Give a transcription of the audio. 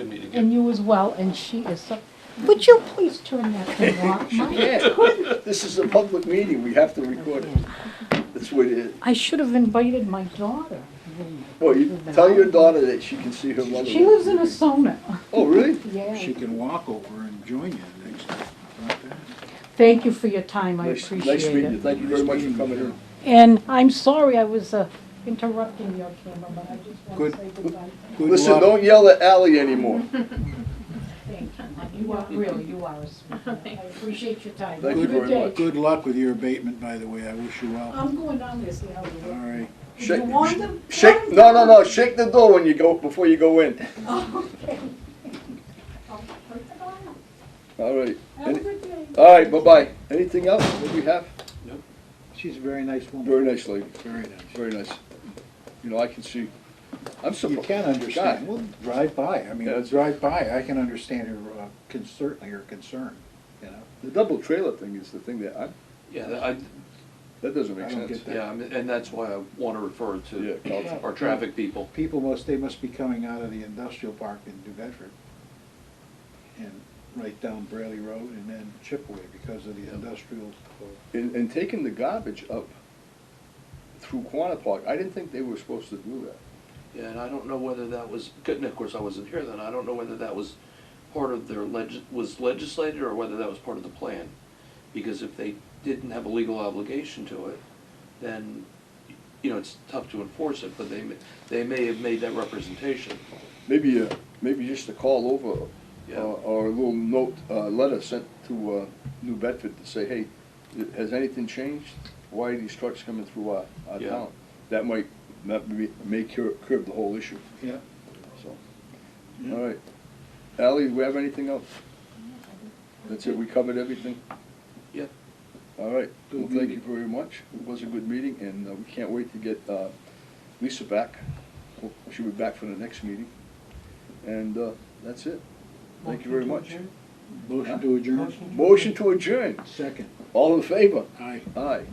and you as well, and she is so, would you please turn that thing off? My- This is a public meeting, we have to record it. That's what it is. I should have invited my daughter. Well, you tell your daughter that she can see her mother. She lives in a sauna. Oh, really? Yeah. She can walk over and join you next time. How about that? Thank you for your time, I Nice, appreciate it. nice meeting you, thank you very much for coming in. And I'm sorry I was uh, interrupting your camera, but I just want Good. to say goodbye. Good Listen, luck. don't yell at Ally anymore. Thank you. You are, really, you are a sweetheart. I appreciate your time. Thank you Have a very good day. much. Good luck with your abatement, by the way. I wish you well. Um, I'm going on this now. All right. You Shake- want them? Shake, no, no, no, shake the door when you go, before you go in. All right, Have a good day. all right, bye-bye. Anything else that we have? She's a very nice woman. Very nice lady, Very nice. very nice. You know, I can see, I'm You surprised. can understand. Well, drive by. I mean, Yeah. drive by. I can understand her, uh, con- certainly her concern, you know? The double trailer thing is the thing that I, Yeah, that- I, that doesn't I make don't sense. get that. yeah, I mean, and that's why I want to refer Yeah, to our traffic people. People must, they must be coming out of the industrial park in New Bedford and right down Braley Road and then Chipaway because of the industrial. And, and taking the garbage up through Quanah Park, I didn't think they were supposed to do that. Yeah, and I don't know whether that was, and of course, I wasn't here then, I don't know whether that was part of their leg, was legislated or whether that was part of the plan. Because if they didn't have a legal obligation to it, then, you know, it's tough to enforce it, but they, may- they may have made that representation. Maybe, uh, maybe just a call over, Yeah. uh, or a little note, uh, letter sent to, uh, New Bedford to say, hey, has anything changed? Why are these trucks coming through our, our Yeah. town? That might, that may, may cur- curb the whole issue, Yeah. so. Yeah. All right. Ally, do we have anything else? That's it, we covered everything? Yeah. All right, well, Good thank you meeting. very much. It was a good meeting, and uh, we can't wait to get uh, Lisa back. Hope She'll be back for the next meeting. And uh, that's it. Thank you very much. Motion to adjourn? Motion to adjourn. Second. All in favor? Aye. Aye.